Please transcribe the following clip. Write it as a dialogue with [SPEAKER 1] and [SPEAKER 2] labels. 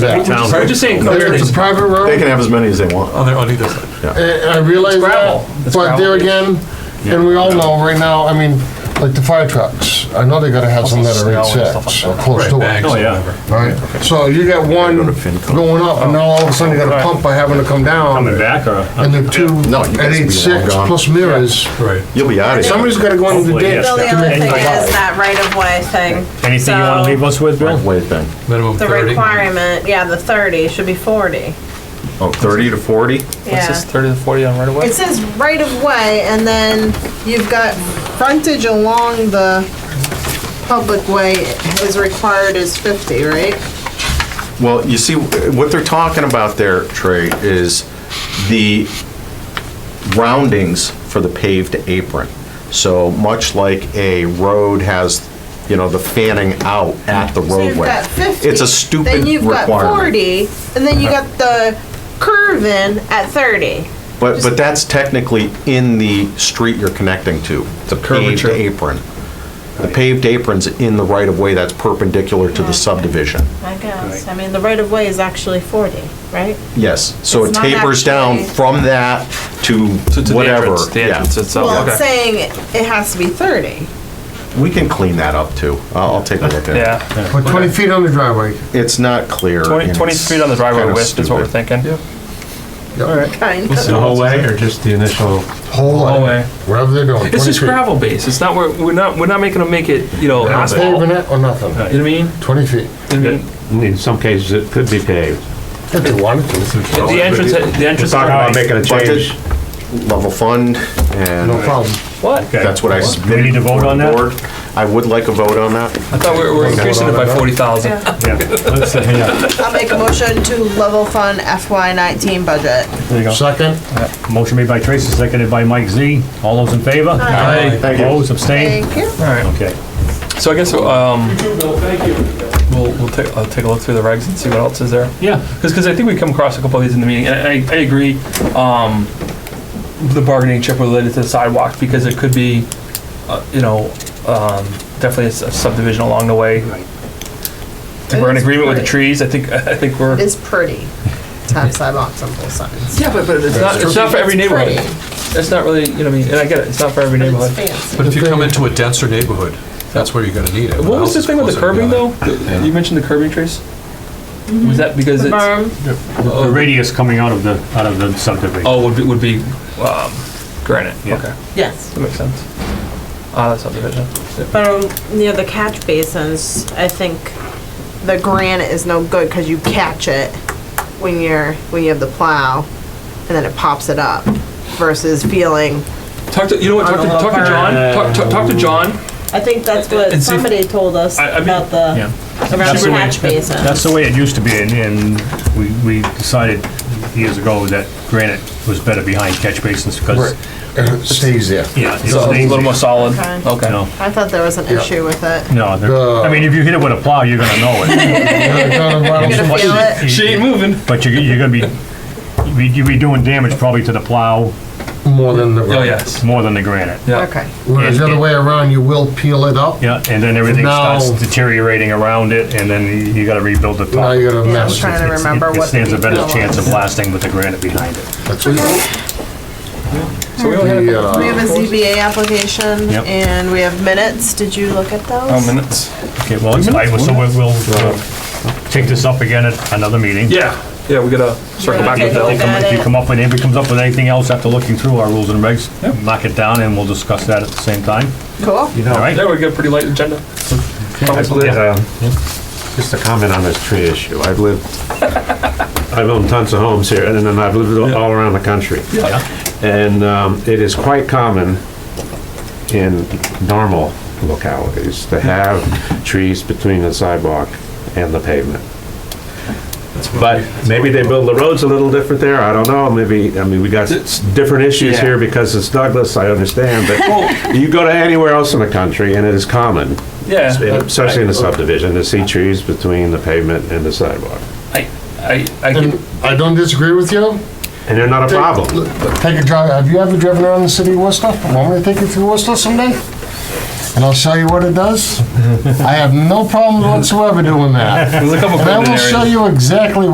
[SPEAKER 1] Yeah.
[SPEAKER 2] Town.
[SPEAKER 3] I'm just saying,
[SPEAKER 1] It's a private
[SPEAKER 4] They
[SPEAKER 1] road,
[SPEAKER 4] can have as many as they want.
[SPEAKER 2] Oh, On, the- on either side.
[SPEAKER 1] and I realize
[SPEAKER 3] gravel.
[SPEAKER 1] that,
[SPEAKER 3] It's
[SPEAKER 1] but there
[SPEAKER 3] gravel.
[SPEAKER 1] again, and we all know right now, I mean, like the fire trucks, I know they gotta have some that are
[SPEAKER 2] Snow and stuff like
[SPEAKER 1] eight-six, or
[SPEAKER 2] that.
[SPEAKER 1] close to it.
[SPEAKER 2] Bags
[SPEAKER 3] Oh,
[SPEAKER 2] or
[SPEAKER 3] yeah.
[SPEAKER 2] whatever.
[SPEAKER 1] Right, so you got one
[SPEAKER 4] Go to FinCom.
[SPEAKER 1] going up, and now all of a sudden you got a pump by having to come
[SPEAKER 3] coming
[SPEAKER 1] down,
[SPEAKER 3] back or?
[SPEAKER 1] and the two
[SPEAKER 4] No, you guys
[SPEAKER 1] at
[SPEAKER 4] will be long
[SPEAKER 1] eight-six
[SPEAKER 4] gone.
[SPEAKER 1] plus mirrors.
[SPEAKER 2] Right.
[SPEAKER 4] You'll be out of here.
[SPEAKER 1] Somebody's gotta go into the
[SPEAKER 3] Hopefully,
[SPEAKER 1] ditch
[SPEAKER 3] yes.
[SPEAKER 5] Bill, the
[SPEAKER 1] to
[SPEAKER 5] other
[SPEAKER 1] make
[SPEAKER 5] thing
[SPEAKER 1] the
[SPEAKER 5] is
[SPEAKER 1] road.
[SPEAKER 5] that right of way thing.
[SPEAKER 3] Anything you want
[SPEAKER 5] So,
[SPEAKER 3] to leave us with, Bill?
[SPEAKER 4] Wait then.
[SPEAKER 2] Minimum
[SPEAKER 5] The
[SPEAKER 2] thirty.
[SPEAKER 5] requirement, yeah, the thirty should be forty.
[SPEAKER 4] Oh, 30 to 40?
[SPEAKER 5] Yeah.
[SPEAKER 2] thirty to forty on right away?
[SPEAKER 6] It says right of way, and then you've got frontage along the public way is required is fifty, right?
[SPEAKER 4] Well, you see, what they're talking about there, Trey, is the roundings for the paved apron. So much like a road has, you know, the fanning out at the
[SPEAKER 6] So you've
[SPEAKER 4] roadway.
[SPEAKER 6] got fifty.
[SPEAKER 4] It's a stupid
[SPEAKER 6] Then you've got
[SPEAKER 4] requirement. Uh-huh.
[SPEAKER 6] forty, and then you got the curve in at thirty.
[SPEAKER 4] But, but that's technically in the street you're connecting to, the paved
[SPEAKER 2] curvature.
[SPEAKER 4] apron. The paved apron's in the right-of-way that's perpendicular to the subdivision.
[SPEAKER 5] I guess, I mean, the right of way is actually forty, right?
[SPEAKER 4] Yes, so it
[SPEAKER 5] It's not
[SPEAKER 4] tapers down
[SPEAKER 5] actually-
[SPEAKER 4] from that to
[SPEAKER 2] So to the
[SPEAKER 4] whatever.
[SPEAKER 2] entrance, the
[SPEAKER 4] yeah.
[SPEAKER 2] entrance itself.
[SPEAKER 6] Well,
[SPEAKER 2] Okay.
[SPEAKER 6] it's saying it has to be thirty.
[SPEAKER 4] We can clean that up too. I'll, I'll take a look at it.
[SPEAKER 7] Yeah,
[SPEAKER 1] But twenty feet on the driveway,
[SPEAKER 4] It's not clear.
[SPEAKER 7] 20,
[SPEAKER 4] and
[SPEAKER 7] 20
[SPEAKER 4] it's
[SPEAKER 7] feet on the driveway
[SPEAKER 4] kinda
[SPEAKER 7] width is what we're
[SPEAKER 4] stupid.
[SPEAKER 7] thinking.
[SPEAKER 6] Kind of.
[SPEAKER 7] The whole way or just the initial?
[SPEAKER 1] whole way, wherever they're going,
[SPEAKER 2] It's
[SPEAKER 1] twenty
[SPEAKER 2] just
[SPEAKER 1] feet.
[SPEAKER 2] gravel base. It's not, we're, we're not, we're not making them make it, you know,
[SPEAKER 1] Not
[SPEAKER 2] asphalt. You know
[SPEAKER 1] paving
[SPEAKER 2] what
[SPEAKER 1] it or nothing,
[SPEAKER 2] I mean?
[SPEAKER 1] twenty feet,
[SPEAKER 2] I mean,
[SPEAKER 7] In some cases, it could be paved.
[SPEAKER 1] if they wanted to,
[SPEAKER 2] The entrance, the entrance.
[SPEAKER 7] Oh, Talking about making a
[SPEAKER 4] But
[SPEAKER 7] change.
[SPEAKER 4] the level fund
[SPEAKER 1] no
[SPEAKER 4] and
[SPEAKER 1] problem.
[SPEAKER 2] What?
[SPEAKER 4] that's what I.
[SPEAKER 7] Do we need to vote
[SPEAKER 4] submitted
[SPEAKER 7] on
[SPEAKER 4] to the
[SPEAKER 7] that?
[SPEAKER 4] board. I would like a vote on that.
[SPEAKER 2] I thought we were- we're increasing it by forty thousand.
[SPEAKER 7] uh, Yeah.
[SPEAKER 6] I'll make a motion to level fund FY nineteen budget.
[SPEAKER 7] There you go.
[SPEAKER 1] Second,
[SPEAKER 7] Motion made by Tracy, seconded by Mike Z. All those in favor?
[SPEAKER 2] Aye.
[SPEAKER 4] Thank you.
[SPEAKER 7] Opposed, abstained?
[SPEAKER 6] Thank you.
[SPEAKER 7] Okay.
[SPEAKER 2] So I guess, um. We'll, we'll take, I'll take a look through the regs and see what else is there. Yeah. Cause, 'cause I think we come across a couple of these in the meeting, and I, I agree, um, the bargaining chip related to the sidewalk, because it could be, uh, you know, um, definitely a subdivision along the way. I think We're in
[SPEAKER 6] It's
[SPEAKER 2] agreement with the
[SPEAKER 6] great.
[SPEAKER 2] trees, I think, I think we're.
[SPEAKER 6] It's pretty to have sidewalks on both sides.
[SPEAKER 2] Yeah, but, but it's not, it's not for every
[SPEAKER 6] It's
[SPEAKER 2] neighborhood.
[SPEAKER 6] pretty.
[SPEAKER 2] It's not really, you know, what I mean, and I get it, it's not for every
[SPEAKER 6] It's
[SPEAKER 2] neighborhood.
[SPEAKER 6] fancy.
[SPEAKER 2] But
[SPEAKER 1] if you come into
[SPEAKER 2] a denser neighborhood,
[SPEAKER 8] That's where you're gonna need it.
[SPEAKER 2] What was this thing with the curbing though?
[SPEAKER 8] Yeah.
[SPEAKER 2] You mentioned the curbing trace? Was that because
[SPEAKER 5] The
[SPEAKER 2] it's,
[SPEAKER 6] uh,
[SPEAKER 5] berm,
[SPEAKER 7] The radius coming out of the, out of the subdivision.
[SPEAKER 2] oh, would be, would be, um, granite,
[SPEAKER 7] Yeah.
[SPEAKER 2] okay,
[SPEAKER 6] Yes.
[SPEAKER 2] that makes sense. Ah, that's subdivision.
[SPEAKER 5] but,
[SPEAKER 2] Yeah.
[SPEAKER 5] um,
[SPEAKER 6] near the catch basins, I think the granite is no good because you catch it when you're, when you have the plow and then it pops it up versus feeling.
[SPEAKER 2] Talk to, you know what, talk to,
[SPEAKER 5] On a
[SPEAKER 2] talk to
[SPEAKER 5] little
[SPEAKER 2] John, talk, talk- talk to John,
[SPEAKER 5] I think that's what
[SPEAKER 2] And see-
[SPEAKER 5] somebody told us
[SPEAKER 2] I- I mean-
[SPEAKER 5] about the, around
[SPEAKER 7] That's
[SPEAKER 5] the
[SPEAKER 7] the way-
[SPEAKER 5] catch basin.
[SPEAKER 7] That's the way it used to be, and, and we, we decided years ago that granite was better behind catch basins because,
[SPEAKER 1] And it stays there.
[SPEAKER 7] yeah, it's
[SPEAKER 2] so it's a little more solid,
[SPEAKER 5] Okay.
[SPEAKER 7] You
[SPEAKER 2] okay.
[SPEAKER 7] know,
[SPEAKER 6] I thought there was an issue with it.
[SPEAKER 7] no, there- I mean, if you hit it with a plow, you're gonna know it.
[SPEAKER 1] Yeah,
[SPEAKER 6] Gonna feel it.
[SPEAKER 2] She ain't moving.
[SPEAKER 7] But you're, you're gonna be, you'd be- you'd be doing damage probably to the plow
[SPEAKER 1] More than the.
[SPEAKER 2] Oh, yes,
[SPEAKER 7] more than the granite.
[SPEAKER 2] yeah.
[SPEAKER 6] Okay.
[SPEAKER 1] Whereas the other way around, you will peel it up.
[SPEAKER 7] Yeah, and then everything
[SPEAKER 1] No.
[SPEAKER 7] starts deteriorating around it, and then you- you gotta rebuild the
[SPEAKER 1] Now
[SPEAKER 7] top.
[SPEAKER 1] you got a
[SPEAKER 6] Yeah, I
[SPEAKER 1] mess.
[SPEAKER 6] was trying to
[SPEAKER 7] It's- it-
[SPEAKER 6] remember
[SPEAKER 7] It
[SPEAKER 6] what the
[SPEAKER 7] stands a better
[SPEAKER 6] detail
[SPEAKER 7] chance of
[SPEAKER 6] was.
[SPEAKER 7] lasting with the granite behind it.
[SPEAKER 1] That's it. The, uh,
[SPEAKER 6] We have a ZBA application
[SPEAKER 7] Yep.
[SPEAKER 6] and we have minutes. Did you look at those?
[SPEAKER 2] Oh, minutes.
[SPEAKER 7] Okay, well, I, so we'll, we'll uh, take this up again at another meeting.
[SPEAKER 2] Yeah, yeah, we gotta circle back with
[SPEAKER 5] take a
[SPEAKER 2] Bill.
[SPEAKER 5] look at
[SPEAKER 7] If you
[SPEAKER 5] it.
[SPEAKER 7] come up with, if it comes up with anything else after looking through our rules and regs, knock it down and we'll discuss that at the same time,
[SPEAKER 6] Cool.
[SPEAKER 7] all right?
[SPEAKER 2] Yeah, we got a pretty light agenda. Probably.
[SPEAKER 9] um, Just a comment on this tree issue. I've lived, I've owned tons of homes here, and then I've lived all around the country. And um, it is quite common in normal localities to have trees between the sidewalk and the pavement. But maybe they build the roads a little different there, I don't know, maybe, I mean, we got s- different issues
[SPEAKER 2] Yeah.
[SPEAKER 9] here because it's Douglas, I understand, but you go to anywhere else in the country and it is common
[SPEAKER 2] Yeah,
[SPEAKER 9] especially in the subdivision, to see trees between the pavement and the sidewalk.
[SPEAKER 2] I, I, I
[SPEAKER 1] And
[SPEAKER 2] can,
[SPEAKER 1] I don't disagree with you.
[SPEAKER 9] And they're not a problem.
[SPEAKER 1] Take a drive, have you ever driven around the city of Worcester? Want me to take you through Worcester someday? and I'll show you what it does. I have no problems whatsoever doing that.
[SPEAKER 2] There's a couple
[SPEAKER 1] And I
[SPEAKER 2] critical
[SPEAKER 1] will
[SPEAKER 2] areas.
[SPEAKER 1] show you exactly